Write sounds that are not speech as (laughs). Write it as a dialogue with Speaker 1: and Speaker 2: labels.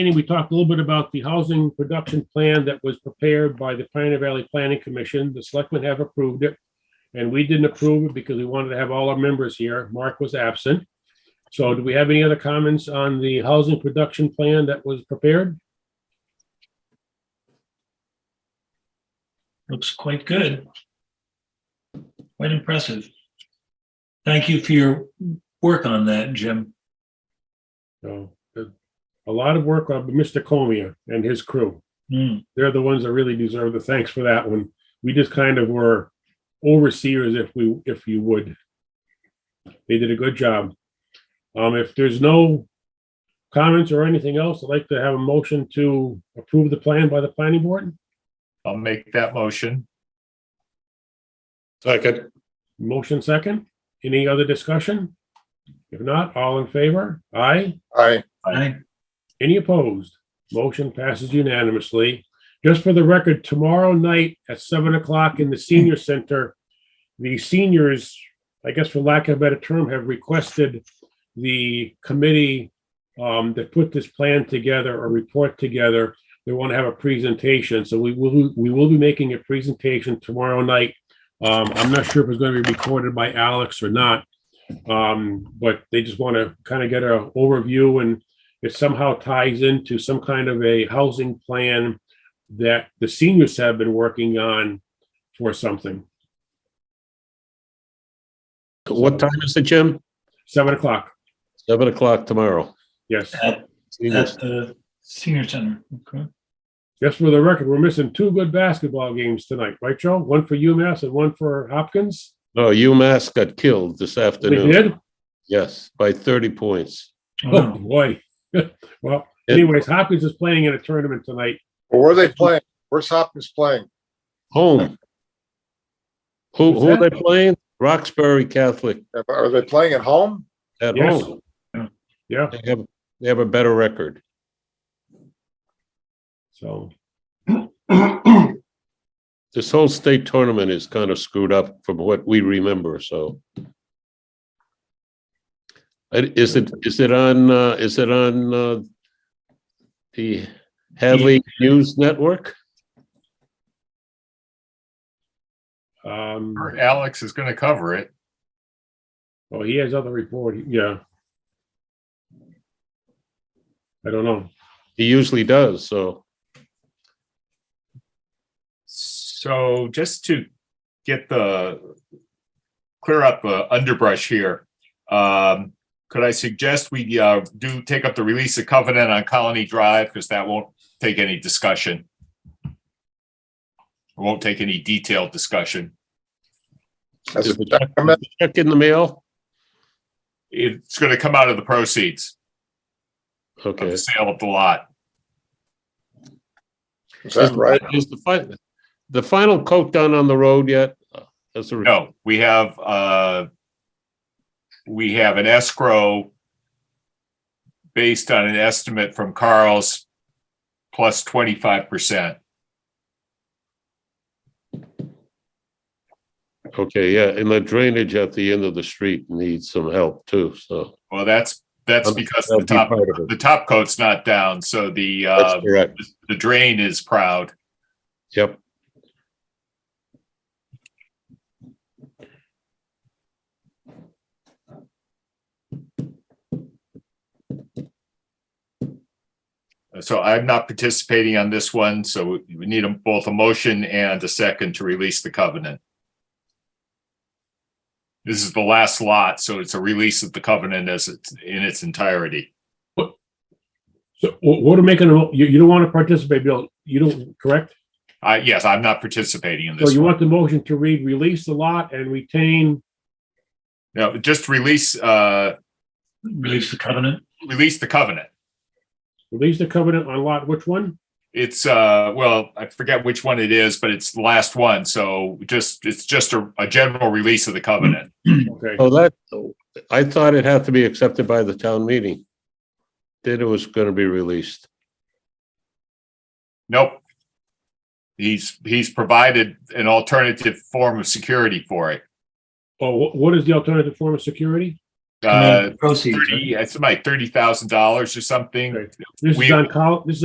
Speaker 1: meeting, we talked a little bit about the housing production plan that was prepared by the Pioneer Valley Planning Commission. The selectmen have approved it. And we didn't approve it because we wanted to have all our members here. Mark was absent. So do we have any other comments on the housing production plan that was prepared?
Speaker 2: Looks quite good. Quite impressive. Thank you for your work on that, Jim.
Speaker 1: So uh, a lot of work on Mr. Comia and his crew.
Speaker 2: Hmm,
Speaker 1: they're the ones that really deserve the thanks for that one. We just kind of were overseers, if we, if you would. They did a good job. Um, if there's no comments or anything else, I'd like to have a motion to approve the plan by the planning board.
Speaker 3: I'll make that motion. Second.
Speaker 1: Motion second. Any other discussion? If not, all in favor? Aye.
Speaker 3: Aye.
Speaker 2: I,
Speaker 1: Any opposed? Motion passes unanimously. Just for the record, tomorrow night at seven o'clock in the senior center, the seniors, I guess for lack of a better term, have requested the committee um, that put this plan together or report together. They want to have a presentation, so we will, we will be making a presentation tomorrow night. Um, I'm not sure if it's going to be recorded by Alex or not. Um, but they just want to kind of get an overview and it somehow ties into some kind of a housing plan that the seniors have been working on for something.
Speaker 4: What time is it, Jim?
Speaker 1: Seven o'clock,
Speaker 4: Seven o'clock tomorrow.
Speaker 1: yes.
Speaker 2: at, at the senior center. Okay.
Speaker 1: Just for the record, we're missing two good basketball games tonight, right, Joe? One for UMass and one for Hopkins.
Speaker 4: No, UMass got killed this
Speaker 1: We
Speaker 4: afternoon.
Speaker 1: did?
Speaker 4: Yes, by thirty points.
Speaker 1: Oh,
Speaker 2: Wow.
Speaker 1: boy. (laughs) Well, anyways, Hopkins is playing in a tournament tonight.
Speaker 5: Where are they playing? Where's Hopkins playing?
Speaker 4: Home. Who,
Speaker 1: Who's
Speaker 4: who are they
Speaker 1: that?
Speaker 4: playing? Roxbury Catholic
Speaker 5: Are they playing at home?
Speaker 4: at
Speaker 1: Yes.
Speaker 4: home.
Speaker 1: Yeah,
Speaker 4: They have, they have a better record.
Speaker 1: so,
Speaker 4: This whole state tournament is kind of screwed up from what we remember, so. And Is it, is it on, uh, is it on, uh, the Hadley News Network?
Speaker 1: um,
Speaker 3: Or Alex is gonna cover it.
Speaker 1: oh, he has other report, yeah. I don't know.
Speaker 4: He usually does, so.
Speaker 3: So just to get the, clear up the underbrush here. Um, could I suggest we, uh, do take up the release of covenant on Colony Drive, because that won't take any discussion. It Won't take any detailed discussion.
Speaker 5: That's
Speaker 4: Is
Speaker 5: a
Speaker 4: the check-
Speaker 5: document.
Speaker 4: is the check in the mail?
Speaker 3: It's gonna come out of the proceeds of
Speaker 4: Okay.
Speaker 3: the sale of the lot.
Speaker 5: Is that right?
Speaker 4: Is the final, the final coat done on the road yet? As a,
Speaker 3: No, we have, uh, we have an escrow based on an estimate from Carl's plus twenty-five percent.
Speaker 4: okay, yeah, and the drainage at the end of the street needs some help too, so.
Speaker 3: Well, that's, that's because the
Speaker 4: That'll be
Speaker 3: top,
Speaker 4: part of it.
Speaker 3: the top coat's not down, so the,
Speaker 4: That's
Speaker 3: uh,
Speaker 4: correct,
Speaker 3: the drain is proud.
Speaker 4: yep.
Speaker 3: So I'm not participating on this one, so we we need a- both a motion and a second to release the covenant. This is the last lot, so it's a release of the covenant as it's in its entirety.
Speaker 1: So wh- what are making, a- you, you don't want to participate, Bill, you don't, correct?
Speaker 3: I yes, I'm not participating in
Speaker 1: So
Speaker 3: this.
Speaker 1: you want the motion to read, release the lot and retain,
Speaker 3: No, just release, uh,
Speaker 2: Release the covenant.
Speaker 3: release the covenant.
Speaker 1: release the covenant on lot, which one?
Speaker 3: It's, uh, well, I forget which one it is, but it's the last one. So just, it's just a, a general release of the covenant.
Speaker 1: Okay,
Speaker 4: Oh, that, I thought it had to be accepted by the town meeting. Then it was gonna be released.
Speaker 3: Nope. He's, he's provided an alternative form of security for it.
Speaker 1: oh, wh- what is the alternative form of security?
Speaker 3: uh,
Speaker 2: Proceeds. right?
Speaker 3: thirty, it's like thirty thousand dollars or something.
Speaker 1: This is
Speaker 3: We-
Speaker 1: on col, this is